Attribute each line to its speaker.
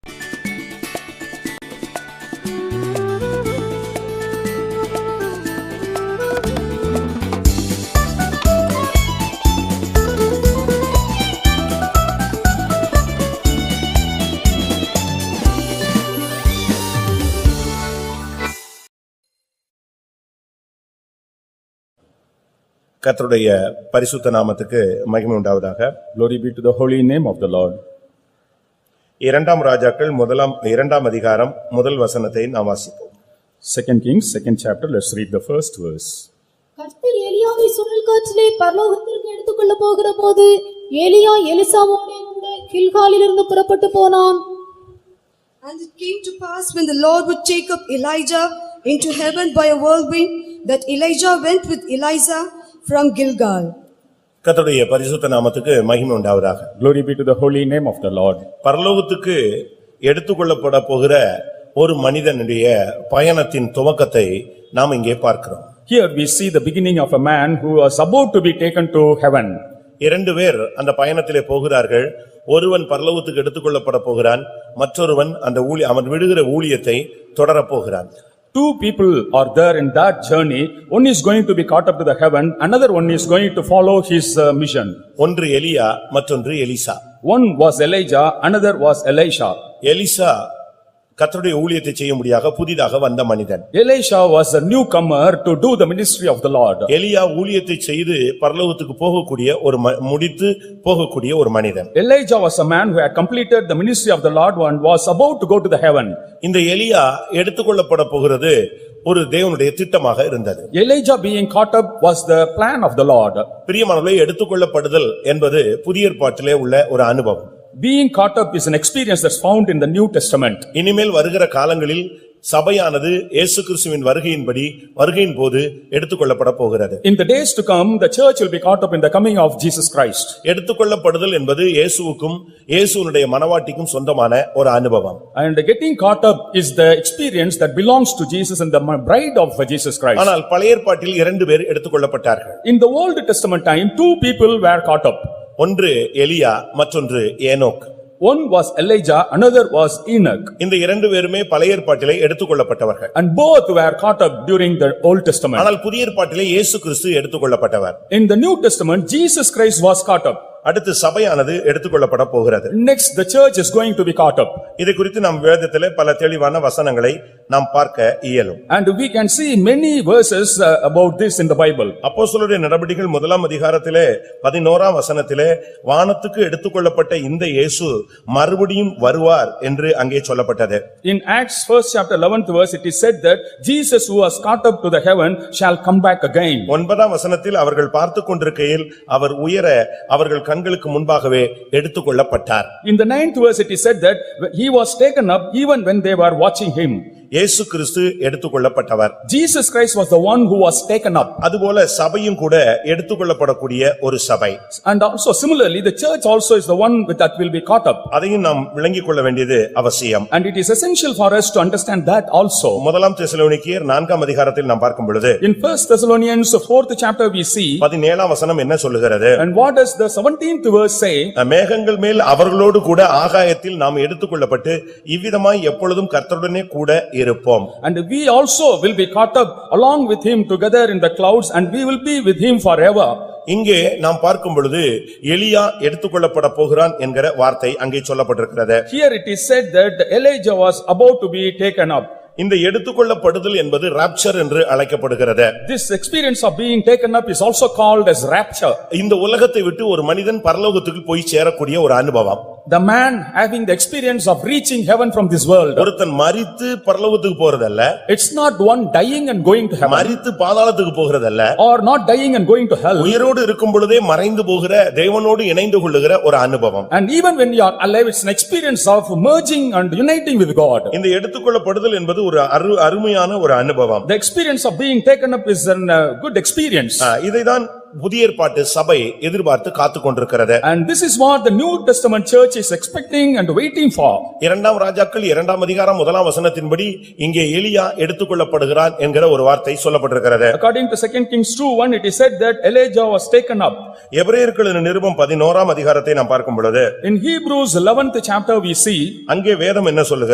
Speaker 1: கர்த்தருடைய பரிசுத்த நாமத்துக்கு மகிமை உண்டாவதாக
Speaker 2: Glory be to the holy name of the Lord.
Speaker 1: இரண்டாம் ராஜாக்கள் முதலாம் இரண்டாம் அதிகாரம் முதல் வசனத்தை நாம் வாசிப்போம்
Speaker 2: Second Kings, second chapter, let's read the first verse.
Speaker 3: கர்த்தர் எலியாவை சுழல் காற்றிலே பரலோகத்திற்கு எடுத்துக்கொள்ள போகிற போது எலியா எலிசாவோடே கூட கில்காலிலிருந்து புறப்பட்டு போனான்
Speaker 4: And it came to pass when the Lord would take up Elijah into heaven by a whirlwind, that Elijah went with Eliza from Gilgal.
Speaker 1: கர்த்தருடைய பரிசுத்த நாமத்துக்கு மகிமை உண்டாவதாக
Speaker 2: Glory be to the holy name of the Lord.
Speaker 1: பரலோகத்துக்கு எடுத்துக்கொள்ளப்பட போகிற ஒரு மனிதனுடைய பயணத்தின் துவக்கத்தை நாம் இங்கே பார்க்கிறோம்
Speaker 2: Here we see the beginning of a man who was about to be taken to heaven.
Speaker 1: இரண்டு பேர் அந்த பயணத்திலே போகிறார்கள் ஒருவன் பரலோகத்துக்கு எடுத்துக்கொள்ளப்பட போகிறான் மற்றொருவன் அந்த ஊழி அவன் விடுகிற ஊழியத்தை தொடரப் போகிறான்
Speaker 2: Two people are there in that journey. One is going to be caught up to the heaven, another one is going to follow his uh, mission.
Speaker 1: ஒன்று எலியா மற்றொன்று எலிசா
Speaker 2: One was Elijah, another was Elisha.
Speaker 1: எலிசா கர்த்தருடைய ஊழியத்தை செய்யும்படியாக புதிதாக வந்த மனிதன்
Speaker 2: Elisha was a newcomer to do the ministry of the Lord.
Speaker 1: எலியா ஊழியத்தை செய்து பரலோகத்துக்கு போகக்கூடிய ஒரு ம- முடித்து போகக்கூடிய ஒரு மனிதன்
Speaker 2: Elijah was a man who had completed the ministry of the Lord and was about to go to the heaven.
Speaker 1: இந்த எலியா எடுத்துக்கொள்ளப்பட போகிறது ஒரு தேவனுடைய திட்டமாக இருந்தது
Speaker 2: Elijah being caught up was the plan of the Lord.
Speaker 1: பிரியமானவர்களே எடுத்துக்கொள்ளப்படுதல் என்பது புதிய ஏற்பாட்டிலே உள்ள ஒரு அனுபவம்
Speaker 2: Being caught up is an experience that's found in the New Testament.
Speaker 1: இனிமேல் வருகிற காலங்களில் சபையானது இயேசு கிறிஸ்துவின் வருகையின்படி வருகையின் போது எடுத்துக்கொள்ளப்பட போகிறது
Speaker 2: In the days to come, the church will be caught up in the coming of Jesus Christ.
Speaker 1: எடுத்துக்கொள்ளப்படுதல் என்பது இயேசுவுக்கும் இயேசுவனுடைய மனவாட்டிக்கும் சொந்தமான ஒரு அனுபவம்
Speaker 2: And getting caught up is the experience that belongs to Jesus and the bride of Jesus Christ.
Speaker 1: ஆனால் பழைய ஏற்பாட்டில் இரண்டு பேர் எடுத்துக்கொள்ளப்பட்டார்கள்
Speaker 2: In the Old Testament time, two people were caught up.
Speaker 1: ஒன்று எலியா மற்றொன்று ஏனோக்
Speaker 2: One was Elijah, another was Enoch.
Speaker 1: இந்த இரண்டு பேருமே பழைய ஏற்பாட்டிலே எடுத்துக்கொள்ளப்பட்டவர்கள்
Speaker 2: And both were caught up during the Old Testament.
Speaker 1: ஆனால் புதிய ஏற்பாட்டிலே இயேசு கிறிஸ்து எடுத்துக்கொள்ளப்பட்டவர்
Speaker 2: In the New Testament, Jesus Christ was caught up.
Speaker 1: அடுத்து சபையானது எடுத்துக்கொள்ளப்பட போகிறது
Speaker 2: Next, the church is going to be caught up.
Speaker 1: இது குறித்து நாம் வேதத்திலே பல தெளிவான வசனங்களை நாம் பார்க்க இயலும்
Speaker 2: And we can see many verses uh, about this in the Bible.
Speaker 1: அப்போஸ்தலருடைய நடபடிகள் முதலாம் அதிகாரத்திலே பதினோராம் வசனத்திலே வானத்துக்கு எடுத்துக்கொள்ளப்பட்ட இந்த இயேசு மறுபடியும் வருவார் என்று அங்கே சொல்லப்பட்டது
Speaker 2: In Acts first chapter eleventh verse, it is said that Jesus who was caught up to the heaven shall come back again.
Speaker 1: ஒன்பதாம் வசனத்தில் அவர்கள் பார்த்துக் கொண்டிருக்கையில் அவர் உயர அவர்கள் கண்களுக்கு முன்பாகவே எடுத்துக்கொள்ளப்பட்டார்
Speaker 2: In the ninth verse, it is said that he was taken up even when they were watching him.
Speaker 1: இயேசு கிறிஸ்து எடுத்துக்கொள்ளப்பட்டவர்
Speaker 2: Jesus Christ was the one who was taken up.
Speaker 1: அதுபோல சபையும் கூட எடுத்துக்கொள்ளப்படக்கூடிய ஒரு சபை
Speaker 2: And also similarly, the church also is the one with- that will be caught up.
Speaker 1: அதையும் நாம் விளங்கிக் கொள்ள வேண்டியது அவசியம்
Speaker 2: And it is essential for us to understand that also.
Speaker 1: முதலாம் தெசலோனிக்கேயர் நான்காம் அதிகாரத்தில் நாம் பார்க்கும் பொழுது
Speaker 2: In first Thessalonians fourth chapter, we see,
Speaker 1: பதினேழாம் வசனம் என்ன சொல்லுகிறது
Speaker 2: and what does the seventeenth verse say?
Speaker 1: மேகங்கள் மேல் அவர்களோடு கூட ஆகாயத்தில் நாம் எடுத்துக்கொள்ளப்பட்டு இவ்விதமாய் எப்பொழுதும் கர்த்தருடனே கூட இருப்போம்
Speaker 2: And we also will be caught up along with him together in the clouds and we will be with him forever.
Speaker 1: இங்கே நாம் பார்க்கும் பொழுது எலியா எடுத்துக்கொள்ளப்பட போகிறான் என்கிற வார்த்தை அங்கே சொல்லப்பட்டிருக்கிறது
Speaker 2: Here it is said that Elijah was about to be taken up.
Speaker 1: இந்த எடுத்துக்கொள்ளப்படுதல் என்பது ராப்சர் என்று அழைக்கப்படுகிறது
Speaker 2: This experience of being taken up is also called as rapture.
Speaker 1: இந்த உலகத்தை விட்டு ஒரு மனிதன் பரலோகத்துக்கு போய் சேரக்கூடிய ஒரு அனுபவம்
Speaker 2: The man having the experience of reaching heaven from this world.
Speaker 1: ஒருத்தன் மரித்து பரலோகத்துக்கு போறதல்ல
Speaker 2: It's not one dying and going to heaven
Speaker 1: மரித்து பாதாளத்துக்கு போகிறதல்ல
Speaker 2: or not dying and going to hell.
Speaker 1: உயிரோடு இருக்கும் பொழுதே மறைந்து போகிற தேவனோடு இணைந்து கொள்ளுகிற ஒரு அனுபவம்
Speaker 2: And even when you are alive, it's an experience of merging and uniting with God.
Speaker 1: இந்த எடுத்துக்கொள்ளப்படுதல் என்பது ஒரு அரு அருமையான ஒரு அனுபவம்
Speaker 2: The experience of being taken up is a good experience.
Speaker 1: ஆ, இதைதான் புதிய ஏற்பாட்டு சபை எதிர்பார்த்து காத்துக் கொண்டிருக்கிறது
Speaker 2: And this is what the New Testament church is expecting and waiting for.
Speaker 1: இரண்டாம் ராஜாக்கள் இரண்டாம் அதிகாரம் முதலாம் வசனத்தின்படி இங்கே எலியா எடுத்துக்கொள்ளப்படுகிறான் என்கிற ஒரு வார்த்தை சொல்லப்பட்டிருக்கிறது
Speaker 2: According to second Kings two one, it is said that Elijah was taken up.
Speaker 1: எபிரேயர்களின் நிருபம் பதினோராம் அதிகாரத்தை நாம் பார்க்கும் பொழுது
Speaker 2: In Hebrews eleventh chapter, we see
Speaker 1: அங்கே வேதம் என்ன சொல்லுகிறது